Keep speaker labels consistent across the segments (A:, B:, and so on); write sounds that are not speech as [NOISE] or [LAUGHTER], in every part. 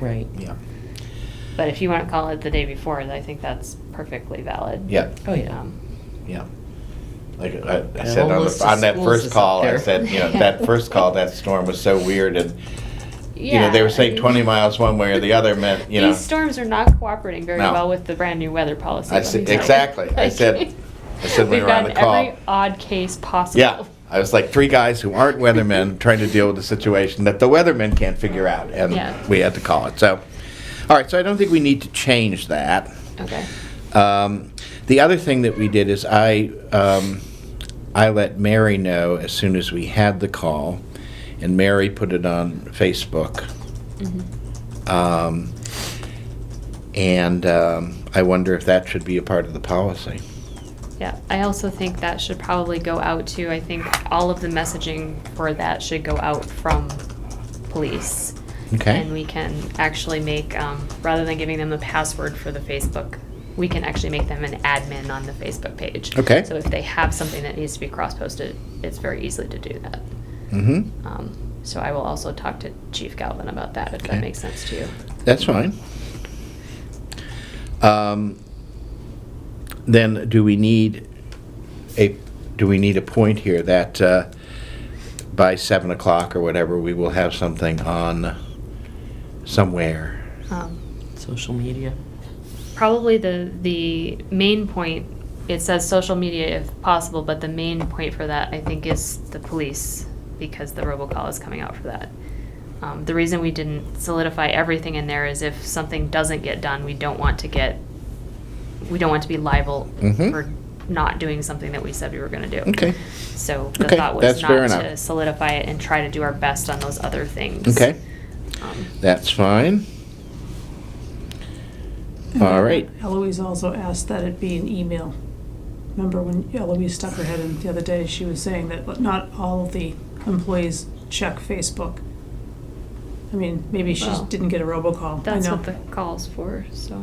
A: Right.
B: Yeah,
C: But if you want to call it the day before, I think that's perfectly valid.
B: yeah,
A: Oh, yeah.
C: Um,
B: yeah. Like I, I
A: The
B: said
A: whole
B: on,
A: list
B: the,
A: of
B: on that
A: schools
B: first
A: is
B: call,
A: up
B: I
A: there.
C: [LAUGHS]
B: said, you know, that first call, that storm was so weird, and you know, they
C: Yeah,
B: were
C: I
B: saying
C: mean,
B: 20 miles one way or the other meant, you know.
C: These storms are not cooperating very
B: No.
C: well with the brand new weather policy.
B: I
C: let
B: said-
C: me tell you.
B: exactly. I
C: Like,
B: said-
C: [LAUGHS]
B: I said when we
C: we've
B: were on
C: got
B: the call.
C: Every [LAUGHS] odd case possible.
B: Yeah, I was like three guys who aren't
C: [LAUGHS]
B: weathermen trying to deal with a situation that the weathermen can't figure out, and
C: Yeah.
B: we had to call it. So, all right. So I don't think we need to change that.
C: Okay.
B: Um, the other thing that we did is I um, I let Mary know as soon as we had the call, and Mary put it on Facebook. Um, and um, I wonder if that should be a part of the policy.
C: Yeah, I also think that should probably go out to, I think all of the messaging for that should go out from police.
B: Okay.
C: And we can actually make, um, rather than giving them the password for the Facebook, we can actually make them an admin on the Facebook page.
B: Okay.
C: So if they have something that needs to be cross-posted, it's very easily to do that.
B: Mm-hmm.
C: Um, so I will also talk to Chief Galvin about that, if
B: Okay.
C: that makes sense to you.
B: That's fine. Um, Then, do we need a, do we need a point here that uh, by 7 o'clock or whatever, we will have something on somewhere?
C: Um,
A: Social media.
C: probably the the main point it says social media if possible but the main point for that i think is the police because the robocall is coming out for that um, the reason we didn't solidify everything in there is if something doesn't get done we don't want to get we don't want to be liable
B: Mhm.
C: for not doing something that we said we were going to do
B: Okay.
C: so the
B: Okay,
C: thought was
B: that's fair
C: not to
B: enough.
C: solidify it and try to do our best on those other things
B: Okay,
C: um,
B: that's fine. All right.
D: Eloise also asked that it be an email. Remember when Eloise stuck her head in the other day, she was saying that not all of the employees check Facebook. I mean, maybe she
C: Well,
D: just didn't get a robocall, I
C: that's
D: know.
C: what the call's for so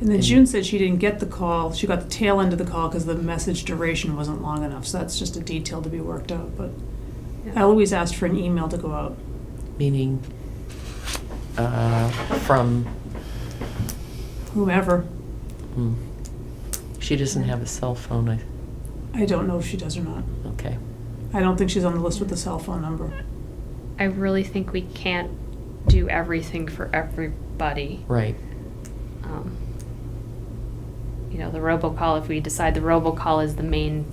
D: And
B: Mm.
D: then June said she didn't get the call, she got the tail end of the call because the message duration wasn't long enough, so that's just a detail to be worked out, but
C: yeah.
D: Eloise asked for an email to go out.
A: Meaning uh, from,
D: Whomever,
A: hmm. she doesn't have a cell phone, I,
D: I don't know if she does or not.
A: okay.
D: I don't think she's on the list with the cell phone number.
C: I really think we can't do everything for everybody.
A: Right,
C: [LAUGHS] Um, You know, the robocall, if we decide the robocall is the main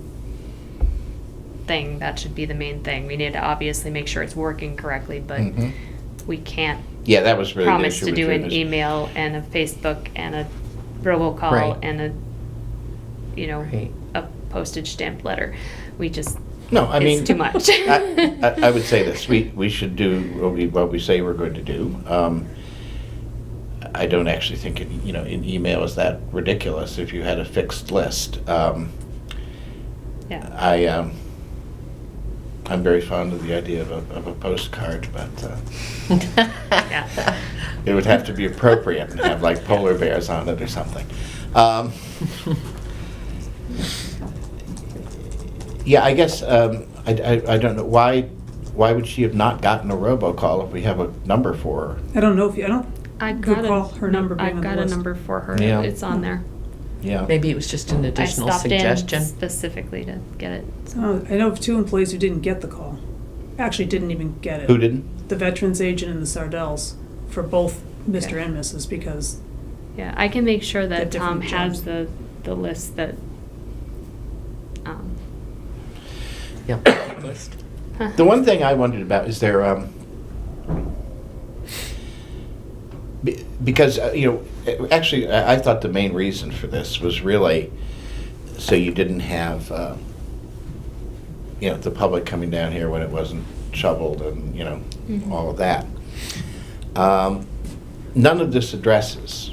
C: thing, that should be the main thing. We need to obviously make sure it's working correctly, but
B: Mhm.
C: we can't
B: Yeah, that was really the
C: promise
B: issue
C: to
B: with
C: do an
B: Judas.
C: email and a Facebook and a
A: Right.
C: robocall and a, you know,
A: Right.
C: a postage stamped letter. We just,
B: No, I
C: It's
B: mean.
C: too much.
B: I, I- I would say this, we, we should do what we, what we say we're going to do. Um, I don't actually think, an- you know, an email is that ridiculous if you had a fixed list. Um,
C: [LAUGHS] yeah.
B: I, um, I'm very fond of the idea of a, of a postcard, but uh,
A: Yeah.
B: it would have to be appropriate and have like polar bears on it or something. Um, Yeah, I guess, um, I, I- I don't know, why, why would she have not gotten a robocall if we have a number for her?
D: I don't know if you, I don't
C: I've got
D: recall
C: a,
D: her
C: num-
D: number being
C: I've
D: on the
C: got a
D: list.
C: number for her.
B: Yeah.
C: It's on there.
B: Yeah.
A: Maybe it was just an
C: I
A: additional
C: stopped in
A: suggestion.
C: specifically to get it.
D: Oh, I know of two employees who didn't get the call. Actually, didn't even get it.
B: Who didn't?
D: The veterans agent and the Sardells for both Mr.
C: Okay.
D: and Mrs. because
C: Yeah, I can make sure
D: They're
C: that Tom
D: different
C: has
D: jobs.
C: the, the list that. um, [LAUGHS]
A: Yep. List.
C: huh.
B: The one thing I wondered about is there, um, be- because, uh, you know, actually, I I thought the main reason for this was really so you didn't have, uh, you know, the public coming down here when it wasn't shoveled and, you know,
C: Mhm.
B: all of that. Um, None of this addresses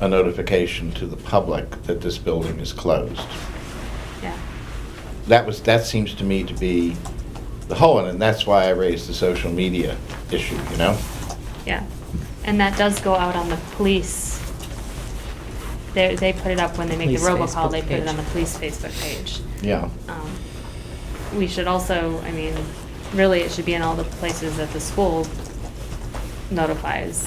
B: a notification to the public that this building is closed
C: Yeah,
B: that was, that seems to me to be the whole, one, and that's why I raised the social media issue, you know?
C: yeah. And that does go out on the police. They, they put it up when they make the
A: Police
C: robocall, they
A: Facebook
C: put it on the
A: page.
C: police Facebook page.
B: Yeah.
C: Um, We should also, I mean, really, it should be in all the places that the school notifies